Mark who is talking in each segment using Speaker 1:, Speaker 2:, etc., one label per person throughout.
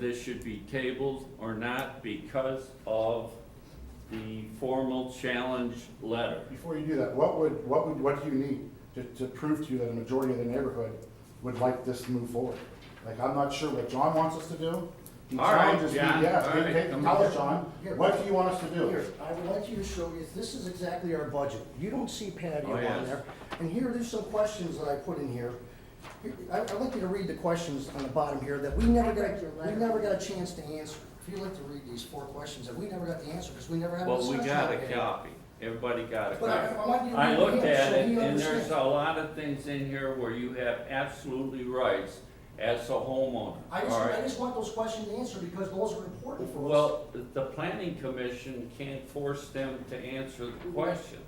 Speaker 1: this should be tabled or not because of the formal challenge letter.
Speaker 2: Before you do that, what would, what would, what do you need to, to prove to you that a majority of the neighborhood would like this to move forward? Like, I'm not sure what John wants us to do. He
Speaker 1: All right,
Speaker 2: challenges me,
Speaker 1: John,
Speaker 2: yeah,
Speaker 1: all right,
Speaker 2: hey, hey,
Speaker 1: come
Speaker 2: tell
Speaker 1: on.
Speaker 2: us, John, what do you want us to do?
Speaker 3: Here, I would like you to show you, this is exactly our budget. You don't see patio
Speaker 1: Oh,
Speaker 3: on
Speaker 1: yes.
Speaker 3: there. And here, there's some questions that I put in here. Here, I- I'd like you to read the questions on the bottom here that we never got,
Speaker 4: read your
Speaker 3: we
Speaker 4: letter.
Speaker 3: never got a chance to answer. If you'd like to read these four questions that we never got the answer, because we never had a
Speaker 1: Well, we
Speaker 3: discussion.
Speaker 1: got a
Speaker 3: about it.
Speaker 1: copy. Everybody got a
Speaker 3: But I-
Speaker 1: copy.
Speaker 3: I want you to
Speaker 1: I
Speaker 3: read
Speaker 1: looked
Speaker 3: it,
Speaker 1: at
Speaker 3: so
Speaker 1: it,
Speaker 3: you
Speaker 1: and there's
Speaker 3: understand.
Speaker 1: a lot of things in here where you have absolutely rights as a homeowner,
Speaker 3: I just,
Speaker 1: all
Speaker 3: I
Speaker 1: right?
Speaker 3: just want those questions answered, because those are important for us.
Speaker 1: Well, the planning commission can't force them to answer the question.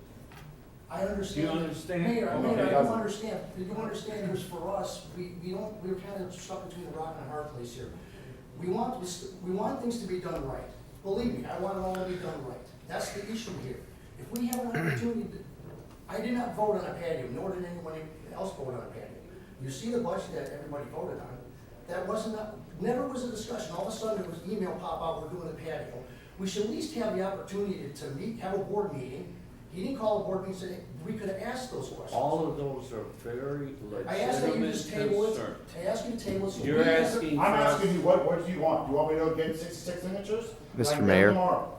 Speaker 3: I understand.
Speaker 1: Do you understand?
Speaker 3: Mayor, I- Mayor, I
Speaker 1: Okay.
Speaker 3: don't understand, you don't understand this for us, we, we don't, we're kind of stuck between the rock and a hard place here. We want, this- we want things to be done right, believe me, I want it all to be done right, that's the issue here. If we have an opportunity, to- I did not vote on a patio, nor did anyone else vote on a patio. You see the budget that everybody voted on, that wasn't, a- never was a discussion, all of a sudden there was email pop out, we're doing a patio. We should at least have the opportunity to meet, have a board meeting, he didn't call a board meeting, said, we could have asked those questions.
Speaker 1: All of those are very
Speaker 3: I ask that you
Speaker 1: legitimate
Speaker 3: just table it,
Speaker 1: concerns.
Speaker 3: I ask you to table it. so
Speaker 1: You're
Speaker 3: we can-
Speaker 1: asking
Speaker 2: I'm
Speaker 1: for us-
Speaker 2: asking you, what, what do you want? Do you want me to get sixty-six signatures?
Speaker 5: Mr.
Speaker 2: Like,
Speaker 5: Mayor.
Speaker 2: Tomorrow.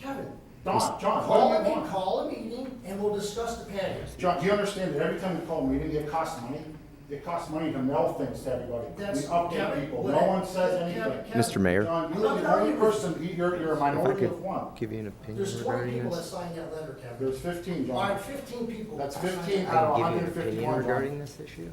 Speaker 3: Kevin,
Speaker 2: Don, John,
Speaker 3: call
Speaker 2: what do you
Speaker 3: a, meeting-
Speaker 2: want?
Speaker 3: call a meeting and we'll discuss the patios.
Speaker 2: John, do you understand that every time we call a meeting, it costs money? It costs money to mail things to everybody. We
Speaker 3: That's-
Speaker 2: update
Speaker 3: Kevin,
Speaker 2: people.
Speaker 3: what-
Speaker 2: No one says
Speaker 3: Kevin,
Speaker 2: anything.
Speaker 3: Kevin,
Speaker 5: Mr. Mayor.
Speaker 2: John, you're the only person, you're, you're a minority of one.
Speaker 5: Give you an opinion
Speaker 3: There's twenty
Speaker 5: regarding
Speaker 3: people that
Speaker 5: this?
Speaker 3: signed that letter, Kevin.
Speaker 2: There's fifteen,
Speaker 3: All right,
Speaker 2: John.
Speaker 3: fifteen people.
Speaker 2: That's
Speaker 3: signed
Speaker 2: 15
Speaker 3: that. "Oh,
Speaker 5: I can give you an
Speaker 2: 151,
Speaker 5: opinion
Speaker 2: John.
Speaker 5: regarding this issue?
Speaker 1: You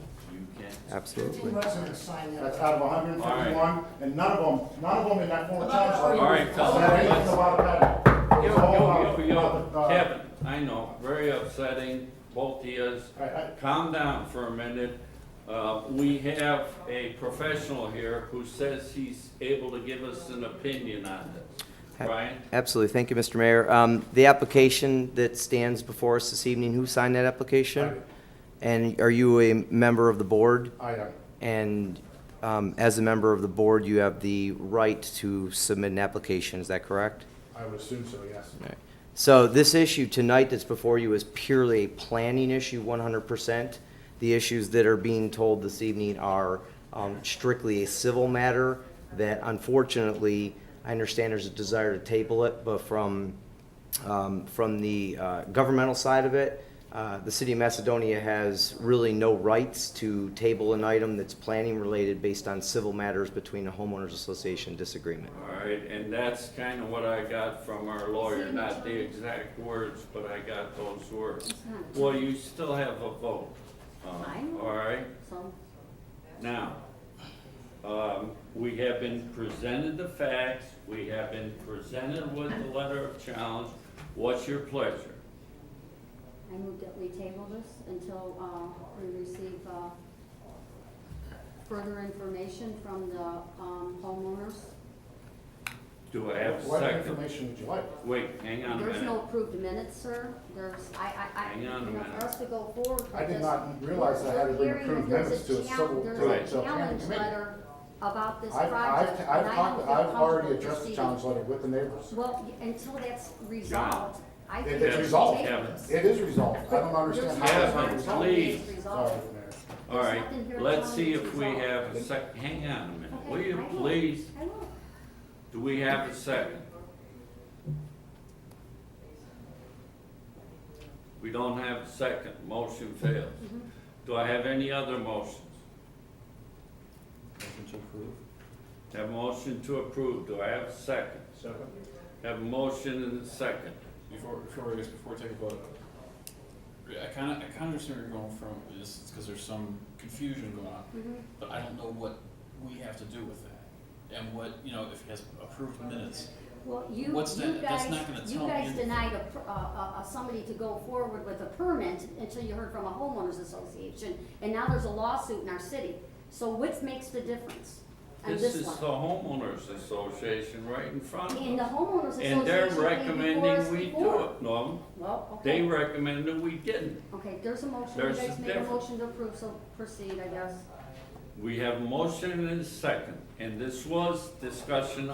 Speaker 1: can't.
Speaker 3: Fifteen
Speaker 5: Absolutely.
Speaker 3: residents signed that.
Speaker 2: That's
Speaker 3: letter.
Speaker 2: out of hundred and fifty-one, and none of them, none of them in that former
Speaker 3: About how
Speaker 2: township.
Speaker 3: you-
Speaker 1: All right, fellas,
Speaker 2: Said anything
Speaker 1: let's-
Speaker 2: about that. It
Speaker 1: Yo,
Speaker 2: was all about-
Speaker 1: yo, yo,
Speaker 2: about the,
Speaker 1: yo,
Speaker 2: uh,
Speaker 1: Kevin, I know, very upsetting, both of yous.
Speaker 2: I- I-
Speaker 1: Calm down for a minute. Uh, we have a professional here who says he's able to give us an opinion on this. Brian,
Speaker 5: Absolutely. Thank you, Mr. Mayor. Um, The application that stands before us this evening, who signed that application? And are you a member of the board?
Speaker 2: I am.
Speaker 5: And um, as a member of the board, you have the right to submit an application, is that correct?
Speaker 2: I would assume so, yes.
Speaker 5: All right. So this issue tonight that's before you is purely a planning issue, one hundred percent. The issues that are being told this evening are um, strictly a civil matter that unfortunately, I understand there's a desire to table it, but from, um, from the uh, governmental side of it, uh, the city of Macedonia has really no rights to table an item that's planning related based on civil matters between a homeowners association disagreement.
Speaker 1: all right, and that's kind of what I got from our lawyer, not the exact words, but I got those words.
Speaker 4: It's not
Speaker 1: Well, you still have a vote. uh,
Speaker 4: Fine.
Speaker 1: All right?
Speaker 4: some,
Speaker 1: Now, um, we have been presented the facts, we have been presented with the letter of challenge. What's your pleasure?
Speaker 4: I move that we table this until, uh, we receive, uh, further information from the, um, homeowners.
Speaker 1: Do I have a
Speaker 2: What
Speaker 1: second?
Speaker 2: information would you like?
Speaker 1: Wait, hang on a
Speaker 4: There's no
Speaker 1: minute.
Speaker 4: approved minutes, sir, there's, I, I, I.
Speaker 1: Hang on a
Speaker 4: you know,
Speaker 1: minute.
Speaker 4: For us to go forward with
Speaker 2: I did
Speaker 4: this,
Speaker 2: not realize I had to bring
Speaker 4: we're hearing
Speaker 2: approved
Speaker 4: that there's
Speaker 2: minutes to a
Speaker 4: chal-
Speaker 2: civil-
Speaker 4: there's
Speaker 2: to
Speaker 1: a
Speaker 4: challenge
Speaker 2: committee.
Speaker 4: letter about this
Speaker 2: I've, I've, I've,
Speaker 4: project. and I
Speaker 2: talked-
Speaker 4: don't feel
Speaker 2: I've already
Speaker 4: comfortable
Speaker 2: addressed the
Speaker 4: proceeding.
Speaker 2: challenge letter with the neighbors.
Speaker 4: Well, y- until that's resolved, I
Speaker 2: It-
Speaker 4: think.
Speaker 2: It's
Speaker 4: we
Speaker 2: resolved.
Speaker 4: table
Speaker 1: Kevin.
Speaker 4: this.
Speaker 2: It is resolved. I don't understand how
Speaker 1: Kevin,
Speaker 2: it's
Speaker 4: There's
Speaker 2: not
Speaker 4: no
Speaker 2: resolved.
Speaker 4: challenge
Speaker 1: please.
Speaker 4: letter. It's
Speaker 2: Sorry,
Speaker 4: resolved.
Speaker 2: Mayor.
Speaker 1: All right,
Speaker 4: nothing here
Speaker 1: let's
Speaker 4: telling
Speaker 1: see
Speaker 4: you
Speaker 1: if
Speaker 4: to
Speaker 1: we
Speaker 4: resolve.
Speaker 1: have a sec, hang on a minute.
Speaker 4: Okay,
Speaker 1: Will
Speaker 4: I
Speaker 1: you
Speaker 4: will.
Speaker 1: please,
Speaker 4: I will.
Speaker 1: do we have a second? We don't have a second, motion fails.
Speaker 4: Mm-hmm.
Speaker 1: Do I have any other motions? Have a motion to approve, do I have a second? Have a motion and a second.
Speaker 6: Before, before I guess before I take a vote, uh, I kind of, I kind of understand where you're going from with this, it's because there's some confusion going on,
Speaker 4: Mhm.
Speaker 6: but I don't know what we have to do with that, and what you know if he has approved minutes.
Speaker 4: Well, you,
Speaker 6: What's
Speaker 4: you
Speaker 6: that? That's
Speaker 4: guys,
Speaker 6: not gonna
Speaker 4: you
Speaker 6: tell me
Speaker 4: guys
Speaker 6: anything.
Speaker 4: denied a, per- uh, uh, uh, somebody to go forward with a permit until you heard from a homeowners association, and now there's a lawsuit in our city. So what makes the difference on
Speaker 1: This is
Speaker 4: this
Speaker 1: the
Speaker 4: one?
Speaker 1: homeowners association right in front
Speaker 4: And
Speaker 1: of
Speaker 4: the
Speaker 1: us.
Speaker 4: homeowners association
Speaker 1: And they're
Speaker 4: came before us
Speaker 1: recommending we do
Speaker 4: before.
Speaker 1: it. No,
Speaker 4: Well,
Speaker 1: they
Speaker 4: okay,
Speaker 1: recommended we didn't.
Speaker 4: okay, there's a motion, you
Speaker 1: There's a
Speaker 4: guys made a
Speaker 1: difference.
Speaker 4: motion to approve, so proceed, I guess.
Speaker 1: We have a motion and a second, and this was discussion